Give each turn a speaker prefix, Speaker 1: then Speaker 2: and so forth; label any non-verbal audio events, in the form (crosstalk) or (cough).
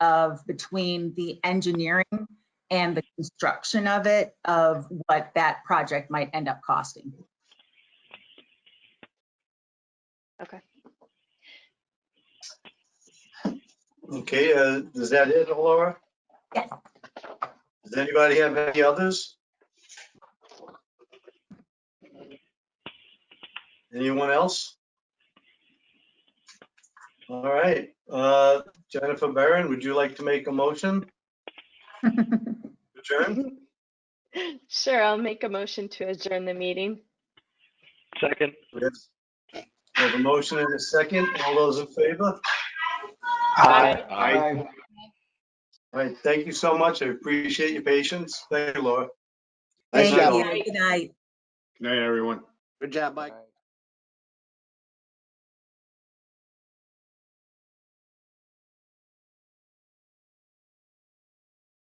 Speaker 1: of between the engineering and the construction of it, of what that project might end up costing.
Speaker 2: Okay.
Speaker 3: Okay, uh, is that it, Laura?
Speaker 1: Yes.
Speaker 3: Does anybody have any others? Anyone else? All right, uh, Jennifer Barron, would you like to make a motion? Adjourn?
Speaker 2: (laughs) Sure, I'll make a motion to adjourn the meeting.
Speaker 4: Second.
Speaker 3: Yes. We have a motion and a second. All those in favor?
Speaker 4: Aye.
Speaker 3: All right, thank you so much. I appreciate your patience. Thank you, Laura.
Speaker 1: Thank
Speaker 3: Nice
Speaker 1: you. Good night.
Speaker 5: Good night, everyone.
Speaker 6: Good job, Mike.